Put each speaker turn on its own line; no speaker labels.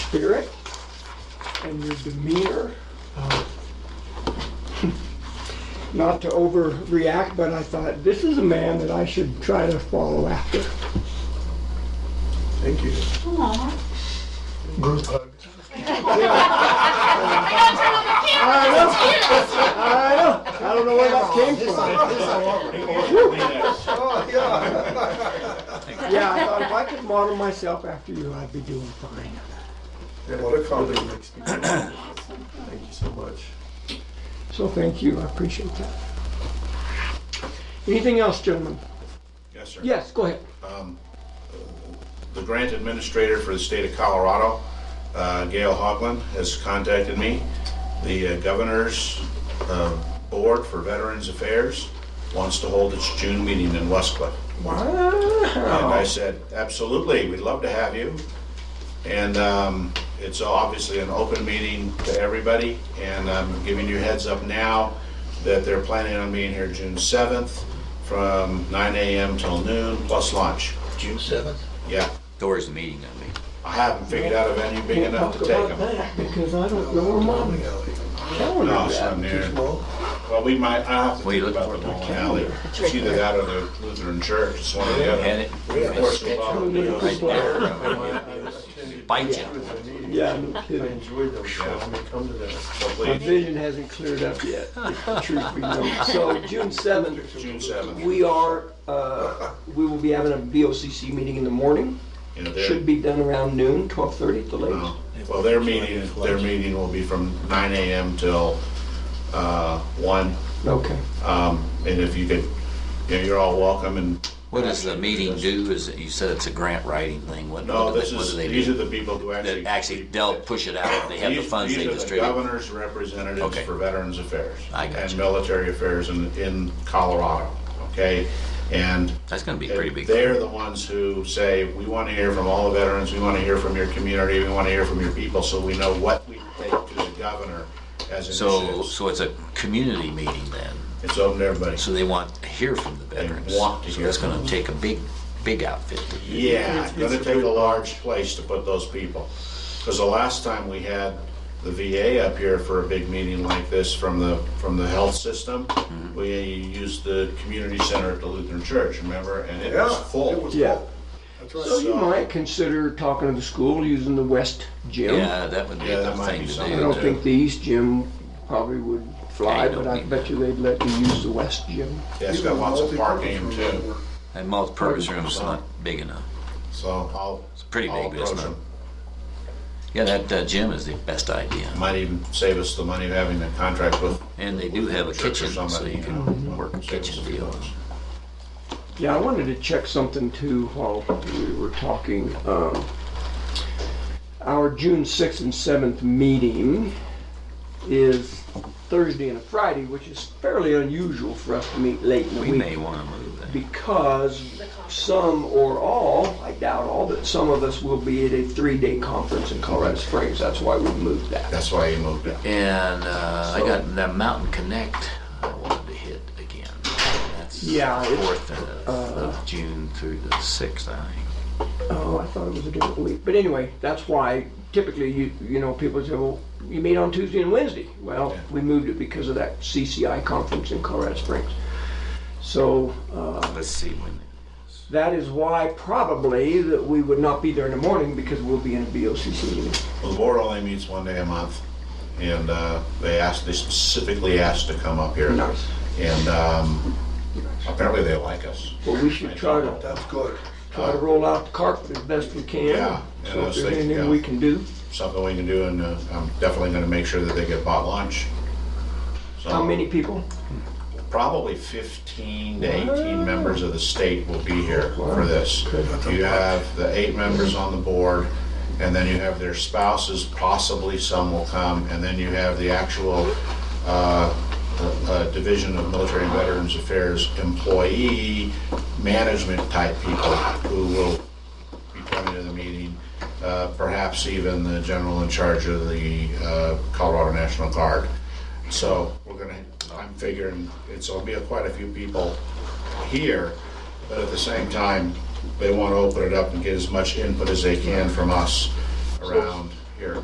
spirit and your demeanor. Uh, Not to overreact, but I thought, this is a man that I should try to follow after.
Thank you.
Aw.
Group hug.
I gotta turn on the camera.
I know, I know, I don't know where that came from.
Oh, yeah.
Yeah, I thought if I could model myself after you, I'd be doing fine.
And what a compliment makes people. Thank you so much.
So thank you, I appreciate that. Anything else, gentlemen?
Yes, sir.
Yes, go ahead.
The grant administrator for the state of Colorado, uh, Gail Hogland, has contacted me. The uh, governor's uh, board for Veterans Affairs wants to hold its June meeting in Westcliff. And I
Wow.
said, absolutely, we'd love to have you. And um, it's obviously an open meeting to everybody, and I'm giving you a heads up now that they're planning on being here June 7th from 9 AM till noon, plus lunch.
June seventh?
Yeah,
Doris meeting, I mean.
I haven't figured out a venue big
Can't
enough
talk
to take
about
them.
that because I don't know where
Bowling
my
alley.
calendar
No,
is
it's
at.
not near.
Well,
Well, we might, I have to
What are you
think about the
looking for?
bowling alley. It's either that or the Lutheran church, it's one or the other.
And it,
Of course, we'll all be on
Right
there.
bite
it
you.
was a need.
Yeah, no
I
kidding.
enjoyed those. Let me come to that.
My
Hopefully,
vision hasn't cleared up yet, if the truth be known. So June seventh,
June 7th.
we are, uh, we will be having a BOCC meeting in the morning.
you know, there-
Should be done around noon, twelve thirty at the latest.
No. Well, their meeting, their meeting will be from 9 AM till uh, 1.
Okay.
Um, And if you could, you know, you're all welcome and.
What does the meeting do? Is it, you said it's a grant writing thing. What,
No,
what do
this
they, what
is,
do they
these are
do?
the people who actually.
That actually, they'll push it out. They have the
These-
funds they
These are the
distribute.
governor's representatives
Okay.
for Veterans Affairs.
I got
And
you.
military affairs in, in Colorado, okay? And
That's gonna be pretty
And
big.
They're the ones who say, we want to hear from all the veterans, we want to hear from your community, we want to hear from your people, so we know what we take to the governor as
So,
initiatives.
so it's a community meeting then.
It's open to everybody.
So they want to hear from the veterans.
want to
So that's
hear from
gonna take a big, big outfit.
Yeah, it's gonna take a large place to put those people. Because the last time we had the VA up here for a big meeting like this from the, from the health system,
Mm-hmm.
we used the community center at the Lutheran Church, remember? And it was
Yeah, it
full.
was
Yeah.
cool. That's right.
So you might consider talking to the school using the west gym.
Yeah, that would be
Yeah,
a
that
good
might be
thing to do.
something.
I don't
to-
think the east gym probably would fly,
Yeah, you
but
don't
I
need
bet
that.
you they'd let you use the west gym.
Yeah, it's got lots of parking too,
That multi-purpose room's not big enough.
so I'll,
It's pretty
I'll
big, but it's
approach
not.
them.
Yeah, that uh, gym is the best idea.
Might even save us the money of having a contract with.
And they do have a kitchen, so you can work a kitchen deal.
Yeah, I wanted to check something too while we were talking. Um, Our June 6th and 7th meeting is Thursday and a Friday, which is fairly unusual for us to meet late in the
We
week
may want to move that.
because some or all, I doubt all, but some of us will be at a three-day conference in Colorado Springs. That's why we moved that.
That's why you moved it.
And uh, I got that Mountain Connect I wanted to hit again. That's
Yeah, it's,
fourth of, of June through the sixth, I think.
Oh, I thought it was a different week. But anyway, that's why typically you you know people say, well, you meet on Tuesday and Wednesday. Well, we moved it because of that CCI conference in Colorado Springs. So uh,
Let's see when.
that is why probably that we would not be there in the morning because we'll be in a BOCC meeting.
Well, the board only meets one day a month, and uh, they asked, they specifically asked to come up here.
Nice.
And um, apparently they like us.
But we should try to
That's good.
try to roll out the cart as best we can.
Yeah, and I
So if there's
was thinking,
anything
yeah.
we can do,
Something we can do, and uh, I'm definitely gonna make sure that they get bought lunch. So,
how many people?
Probably 15 to 18 members of the state will be here for this. You have the eight members on the board, and then you have their spouses, possibly some will come, and then you have the actual uh, uh, Division of Military and Veterans Affairs employee management type people who will be coming to the meeting, uh, perhaps even the general in charge of the uh, Colorado National Guard. So we're gonna, I'm figuring it's, will be quite a few people here, but at the same time, they want to open it up and get as much input as they can from us around